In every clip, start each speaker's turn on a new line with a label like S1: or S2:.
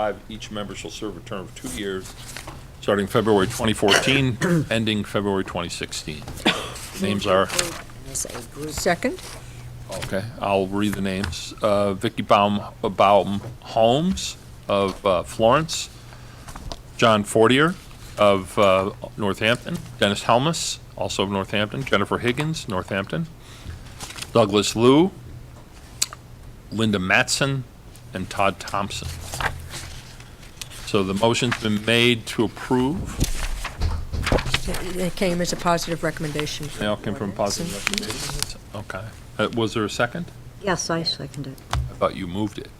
S1: Five, each member shall serve a term of two years, starting February 2014, ending February 2016. Names are,
S2: As a group. Second?
S1: okay, I'll read the names. Uh, Vicky Baum, Baum Holmes of uh, Florence, John Fortier of uh, Northampton, Dennis Helmus, also of Northampton, Jennifer Higgins, Northampton, Douglas Liu, Linda Matson, and Todd Thompson. So the motion's been made to approve.
S2: It came as a positive recommendation. from
S1: They all came from
S2: the
S1: positive
S2: ordinance.
S1: recommendations? Okay. Uh, Was there a second?
S3: Yes, I second it.
S1: I thought you moved it.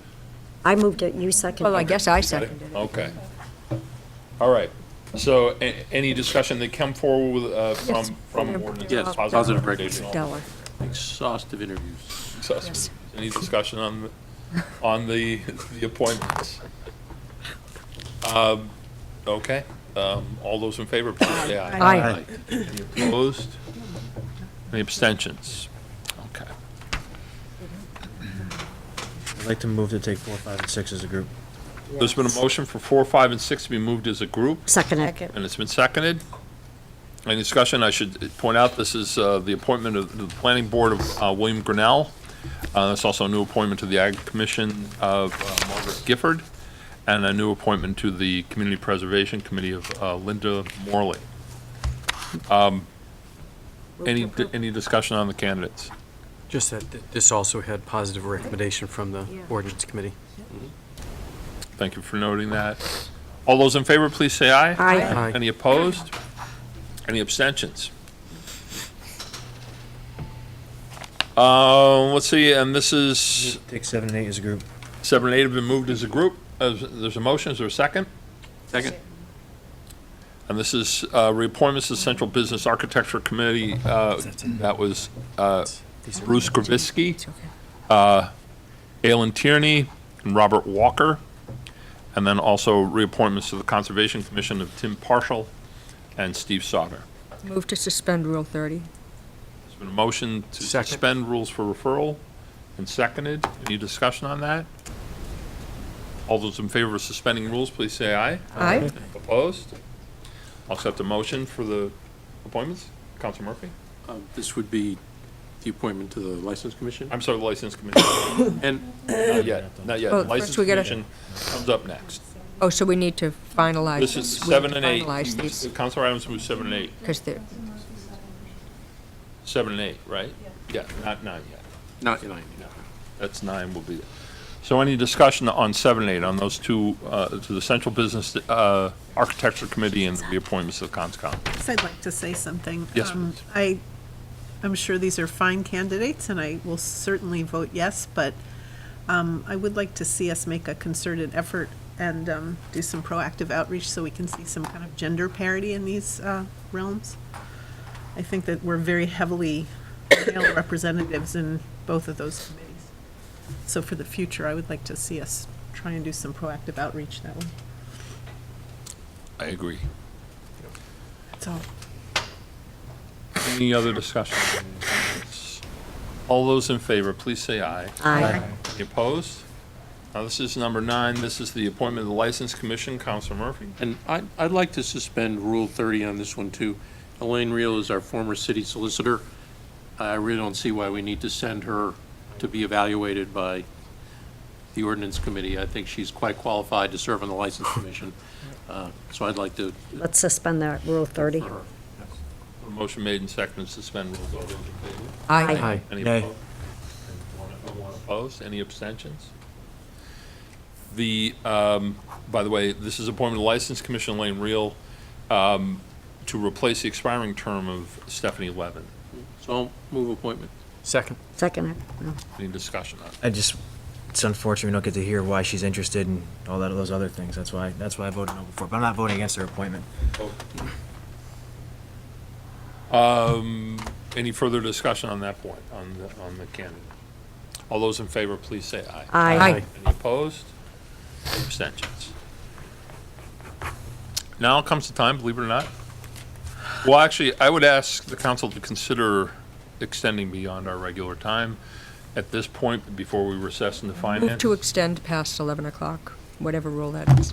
S3: I moved it, you seconded it.
S2: Well, I guess I seconded it.
S1: Okay. All right. So a- any discussion that come forward with, uh, from,
S2: Yes.
S1: from ordinance?
S2: Yes,
S4: positive
S1: recommendation.
S2: Stellar.
S4: Exhaustive interviews.
S1: Sussman. Any discussion on, on the, the appointments? Um, Okay, um, all those in favor, please say aye.
S2: Aye.
S1: Any opposed? Any abstentions? Okay.
S5: I'd like to move to take four, five, and six as a group.
S1: There's been a motion for four, five, and six to be moved as a group.
S3: Second it.
S1: And it's been seconded. Any discussion? I should point out, this is uh, the appointment of the Planning Board of uh, William Grinnell. Uh, That's also a new appointment to the Ag Commission of uh, Margaret Gifford, and a new appointment to the Community Preservation Committee of uh, Linda Morley. Um, Any, any discussion on the candidates?
S6: Just that th- this also had positive recommendation from the ordinance committee.
S1: Thank you for noting that. All those in favor, please say aye.
S3: Aye.
S6: Aye.
S1: Any opposed? Any abstentions? Uh, let's see, and this is,
S5: Take seven and eight as a group.
S1: seven and eight have been moved as a group. Uh, There's a motion, is there a second?
S4: Second?
S1: And this is uh, reappointments to Central Business Architecture Committee. uh, That was uh,
S6: These are-
S1: Bruce Gravitsky,
S2: It's okay.
S1: Alan Tierney, and Robert Walker. And then also reappointments to the Conservation Commission of Tim Marshall and Steve Sauter.
S2: Move to suspend Rule 30.
S1: There's been a motion to
S6: Second.
S1: suspend rules for referral and seconded. Any discussion on that? All those in favor of suspending rules, please say aye.
S2: Aye.
S1: Opposed? I'll accept the motion for the appointments. Council Murphy?
S4: Uh, This would be the appointment to the License Commission?
S1: I'm sorry, the License Commission.
S4: And
S1: uh, Not yet, not yet.
S2: Well, first
S1: License
S2: we gotta-
S1: Commission comes up next.
S2: Oh, so we need to finalize.
S1: This is
S2: We
S1: seven and eight. Mm,
S2: Finalize these,
S1: Council items move seven and eight.
S2: because they're,
S1: Seven and eight, right? Yeah, not nine yet.
S4: not nine.
S1: That's nine will be. So any discussion on seven and eight, on those two, uh, to the Central Business uh, Architecture Committee and the reappointments to the ConsCom?
S7: Yes, I'd like to say something.
S1: Yes,
S7: Um,
S1: please.
S7: I, I'm sure these are fine candidates, and I will certainly vote yes, but um, I would like to see us make a concerted effort and um, do some proactive outreach so we can see some kind of gender parity in these uh, realms. I think that we're very heavily male representatives in both of those committees. So for the future, I would like to see us try and do some proactive outreach that way.
S1: I agree.
S7: That's all.
S1: Any other discussion? All those in favor, please say aye.
S3: Aye.
S1: Any opposed? Now, this is number nine. This is the appointment of the License Commission, Council Murphy.
S4: And I'd, I'd like to suspend Rule 30 on this one, too. Elaine Reel is our former city solicitor. I really don't see why we need to send her to be evaluated by the ordinance committee. I think she's quite qualified to serve on the License Commission. Uh, So I'd like to,
S3: Let's suspend that Rule 30.
S1: Motion made and seconded, to suspend rules. All those in favor?
S2: aye.
S6: Aye.
S1: Any
S5: Nay.
S1: opposed? Anyone- anyone Opposed? Any abstentions? The, um, by the way, this is appointment of License Commission Lane Real um, to replace the expiring term of Stephanie Levin.
S4: so I'll move appointment.
S6: Second.
S3: Second it. No.
S1: Any discussion on it?
S5: I just, it's unfortunate we don't get to hear why she's interested and all that, those other things. That's why, that's why I voted no before. But I'm not voting against her appointment.
S1: Any further discussion on that point, on the, on the candidate? All those in favor, please say aye.
S3: Aye.
S1: Any opposed? Any Abstentions? Now comes the time, believe it or not. Well, actually, I would ask the council to consider extending beyond our regular time at this point before we recess into
S2: Move
S1: finance.
S2: to extend past 11 o'clock. whatever rule that is.